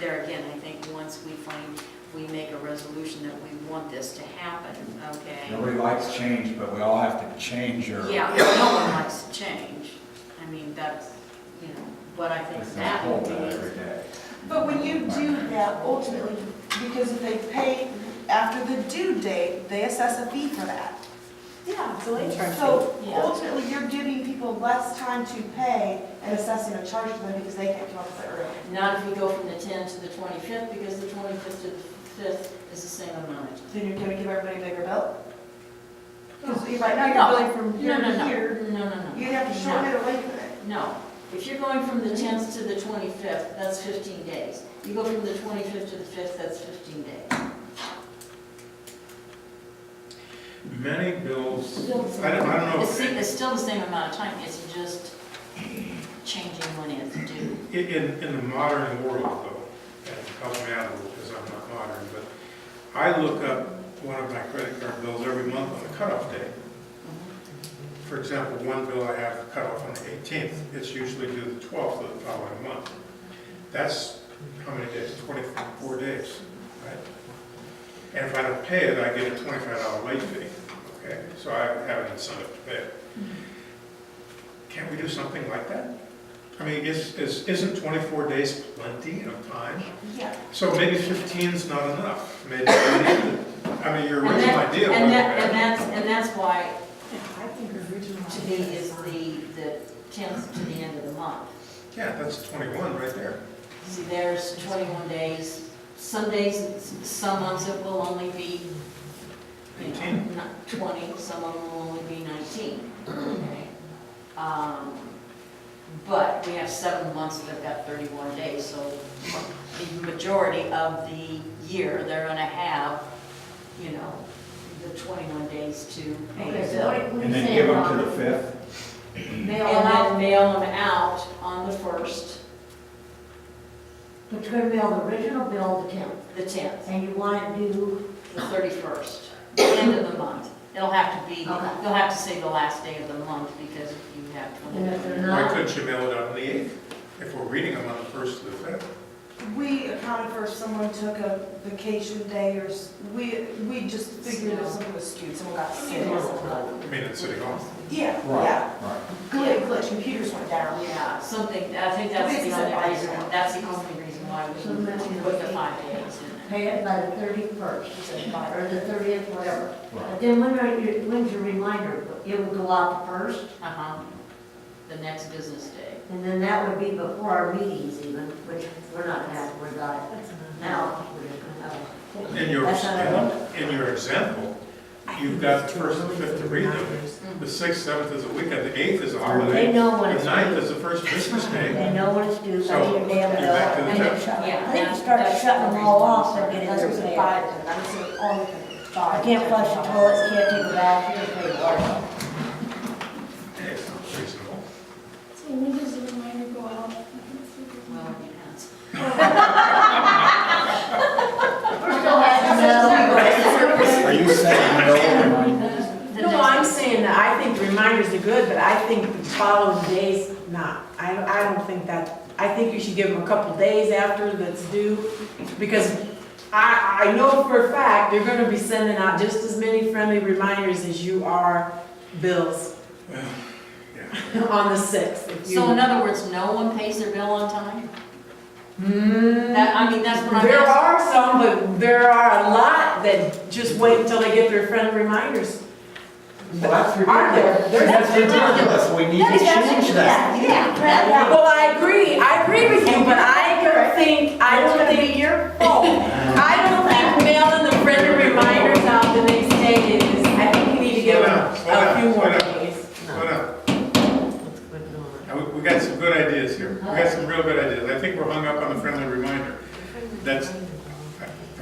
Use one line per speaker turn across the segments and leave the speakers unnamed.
there again, I think once we find, we make a resolution that we want this to happen, okay?
Nobody likes change, but we all have to change your.
Yeah, no one likes to change. I mean, that's, you know, but I think
It's not
that would
hold
be.
that every day.
But when you do that, ultimately, because if they pay after the due date, they assess a fee for that.
Yeah, so
So ultimately, you're giving people less time to pay and assessing a charge to them because they can't come up with it early.
Not if we go from the 10th to the 25th, because the 25th to the 5th is the same amount.
Then you're gonna give everybody a bigger bill? Because right
No.
now, you're billing from here
No, no,
to
no,
here.
no, no, no.
You'd have to shorten it or lengthen it.
No, if you're going from the 10th to the 25th, that's 15 days. You go from the 25th to the 5th, that's 15 days.
Many bills,
Still the same.
I don't, I don't know,
It's
if-
si- it's still the same amount of time, it's just changing when it's due.
i- in, in the modern world though, and help me out a little, because I'm not modern, but I look up one of my credit card bills every month on the cutoff day. For example, one bill I have cut off on the 18th, it's usually due the 12th of the following month. That's how many days, 24 days, right? And if I don't pay it, I get a $25 late fee, okay? So I have an incentive to pay it. Can't we do something like that? I mean, is, is, isn't 24 days plenty of time?
Yeah.
So maybe 15's not enough, maybe, I mean, your
And
original
that-
idea was
And that,
bad.
and that's, and that's why
I think original.
to me is the, the 10th to the end of the month.
Yeah, that's 21 right there.
See, there's 21 days, some days, some months it will only be, you know,
18.
not 20, some of them will only be 19. okay? Um, But we have seven months that have got 31 days, so the majority of the year, they're gonna have, you know, the 21 days to pay
Okay,
the
so
bill.
what what are you
And then
saying,
give them
Ron?
to the fifth.
Mail them
And then
out,
mail them out on the 1st,
but you're gonna mail the original bill the tenth,
the 10th.
and you want to do,
the 31st, end of the month. It'll have to be, you'll
Okay.
have to say the last day of the month because you have
and if
20.
they're
Why
not,
couldn't you mail it out on the 8th, if we're reading them on the 1st to the 5th?
We accounted for if someone took a vacation day or, s- we, we just figured if someone was skewed, someone got sick. or something.
I mean, in City Hall.
Yeah, yeah.
Right, right.
Glitch, glitch, computers went down.
Yeah, something, I think that's the only reason, that's the only reason why we put the five days in
pay it by the thirty-first, or the thirtieth, whatever.
Right.
But then when are your, when's your reminder? It would go out the first,
there. Uh-huh, the next business day.
and then that would be before our meetings even, which we're not gonna have, we're not, now, we're just gonna have.
In your,
That's not a-
in your example, you've got the 1st and 5th to read them. The 6th, 7th is a weekend, the 8th is a
They
holiday,
know
the
when it's
9th
due,
is the first business
they
day.
know when it's due, so
So,
you mail
you're
it
back
out.
to the
And then
tenth.
shut-
Yeah,
I think you
that-
start
that's
shutting
the
them all
reason.
off, they're getting
That's
their
what
mail.
five, and I'm saying only five.
I can't flush the toilets, can't take a bath, can't play ball.
Hey, it's not reasonable.
So when does the reminder go out?
Well, it
We're still having
Are you saying no?
depends. The
No,
next-
I'm saying that I think reminders are good, but I think the following days, not. I, I don't think that, I think you should give them a couple days after that's due, because I, I know for a fact, they're gonna be sending out just as many friendly reminders as you are bills on the sixth. if you-
So in other words, no one pays their bill on time?
Hmm.
That, I mean, that's what I'm
There
asking.
are some, but there are a lot that just wait until they get their friendly reminders.
Well, that's
Aren't there?
ridiculous.
There's-
That's ridiculous. We need to change that.
Well, I agree, I agree with you, but I don't think, I don't think your fault. I don't think mailing the friendly reminders out the next day is, I think we need to give it a few more days.
Hold on, Now, we- we got some good ideas here, we got some real good ideas, I think we're hung up on the friendly reminder. That's, the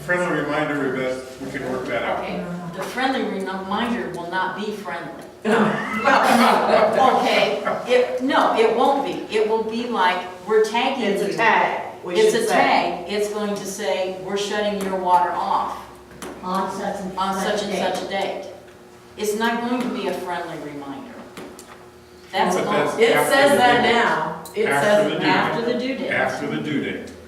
friendly reminder, we best- we can work that out.
Okay, the friendly reminder will not be friendly. Okay, it, no, it won't be. It will be like, we're tagging you.
It's a tag, we
It's
should
a
say.
tag. It's going to say, we're shutting your water off
On such and
on such and
day.
such a date. It's not going to be a friendly reminder. That's
But
all,
that's-
It says that now, it
After the
says
due
now.
after the due date.
After the due date,